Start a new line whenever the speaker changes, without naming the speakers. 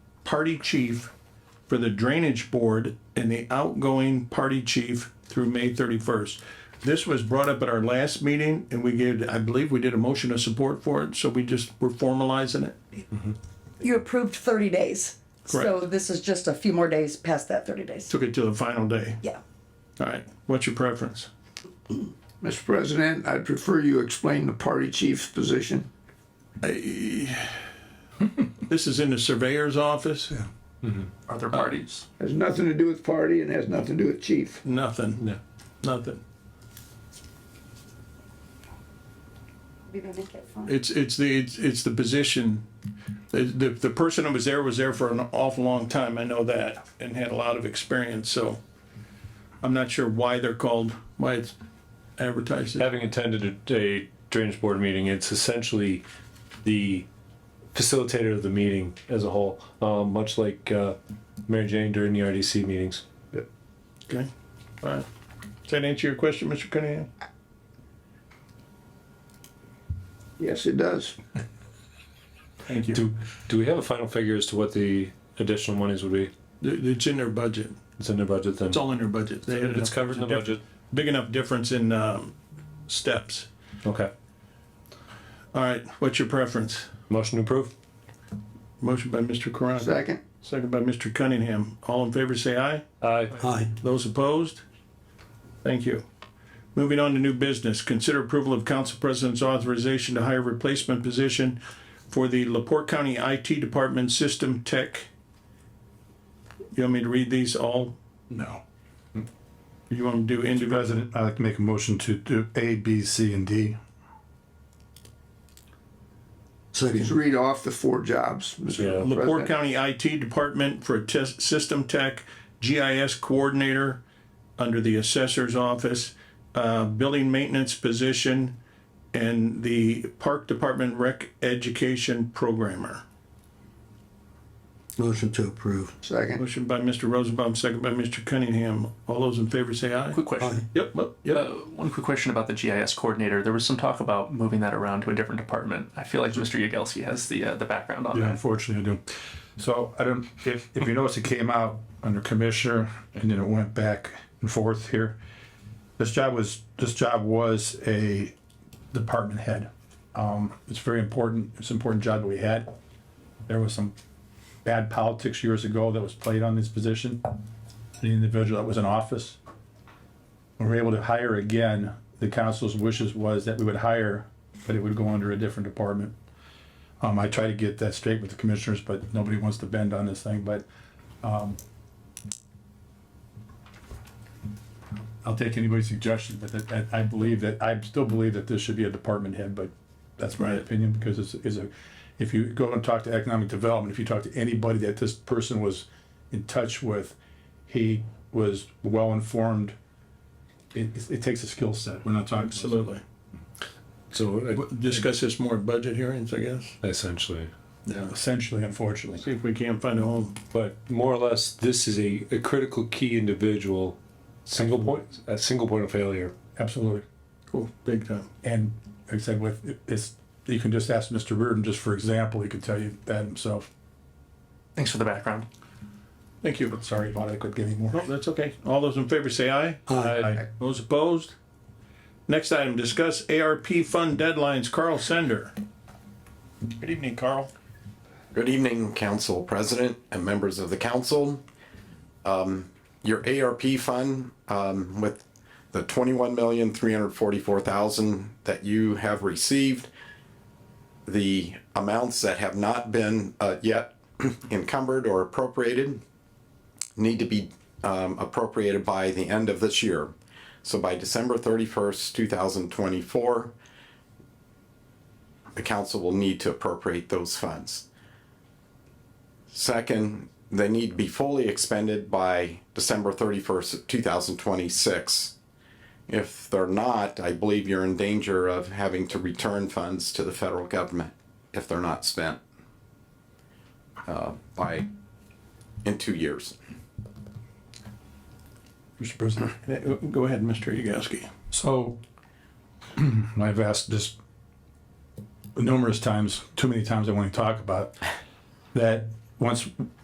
party chief for the drainage board and the outgoing party chief through May thirty-first. This was brought up at our last meeting and we gave, I believe we did a motion of support for it, so we just, we're formalizing it.
You approved thirty days. So
Correct.
this is just a few more days past that thirty days.
Took it to the final day.
Yeah.
All right, what's your preference?
Mr. President, I'd prefer you explain the party chief's position.
This is in the surveyor's office?
Other
Uh,
parties?
Has nothing to do with party and has nothing to do with chief.
Nothing,
No.
nothing.
We're gonna make it fun.
It's, it's the, it's, it's the position. The, the, the person who was there was there for an awful long time, I know that, and had a lot of experience, so. I'm not sure why they're called, why it's advertised. as-
having attended a, a drainage board meeting, it's essentially the facilitator of the meeting as a whole, um, much like uh, Mary Jane during the RDC meetings.
Okay, all right. Does that answer your question, Mr. Cunningham?
Yes, it does.
Thank
Do do we have a final figure as to what the additional monies would be?
It's in their budget.
It's in their budget then.
It's all in their budget. They had
It's
a-
covered in the budget.
Big enough difference in, um, steps.
Okay.
All right, what's your preference?
Motion to approve.
Motion by Mr. Karanka.
Second,
Second by Mr. Cunningham. All in favor, say aye.
Aye.
Those opposed? Thank you. Moving on to new business, consider approval of council president's authorization to hire replacement position for the Laporte County IT Department System Tech. You want me to read these all?
No.
You want to do individual?
President, I'd like to make a motion to do A, B, C, and D.
just read off the four jobs,
Yeah.
Mr.
Laporte
President.
County IT Department for test, System Tech, GIS Coordinator under the Assessor's Office, uh, Building Maintenance Position, and the Park Department Rec Education Programmer.
Motion to approve.
Second,
Motion by Mr. Rosenbaum, second by Mr. Cunningham. All those in favor say aye.
Quick question.
Yep, oh, yep,
Uh,
yep.
one quick question about the GIS coordinator. There was some talk about moving that around to a different department. I feel like Mr. Yagelski has the uh, the background on
Yeah,
that.
unfortunately, I do. So I don't, if, if you notice, it came out under commissioner and then it went back and forth here. This job was, this job was a department head. Um, it's very important, it's an important job that we had. There was some bad politics years ago that was played on this position. The individual that was in office. We were able to hire again. The council's wishes was that we would hire, but it would go under a different department. Um, I try to get that straight with the commissioners, but nobody wants to bend on this thing, but, um, I'll take anybody's suggestion, but that, that- I believe that, I still believe that this should be a department head, but that's my opinion, because it's, is a, if you go and talk to economic development, if you talk to anybody that this person was in touch with, he was well-informed. It, it- it takes a skill set. We're not talking.
Absolutely.
So
Discuss this more at budget hearings, I guess.
uh, essentially,
Yeah.
Essentially, unfortunately.
See if we can't find a home.
but more or less, this is a, a critical key individual, single point, a single point of failure.
Absolutely.
Cool, big time.
And like I said, with it's, you can just ask Mr. Reardon, just for example, he could tell you that himself.
Thanks for the background.
Thank you.
Sorry about it, I couldn't get any more.
Oh, that's okay. All those in favor say aye.
Aye.
Those opposed? Next item, discuss ARP fund deadlines. Carl Sender. Good evening, Carl.
Good evening, Council President and members of the council. Um, Your ARP fund um, with the twenty-one million, three hundred forty-four thousand that you have received, the amounts that have not been uh, yet encumbered or appropriated need to be um, appropriated by the end of this year. So by December thirty-first, two thousand twenty-four, the council will need to appropriate those funds. Second, they need to be fully expended by December thirty-first, two thousand twenty-six. If they're not, I believe you're in danger of having to return funds to the federal government if they're not spent uh, by, in two years.
Mr. President.
Go ahead, Mr. Yagowski.
So, I've asked this numerous times, too many times I want to talk about, that once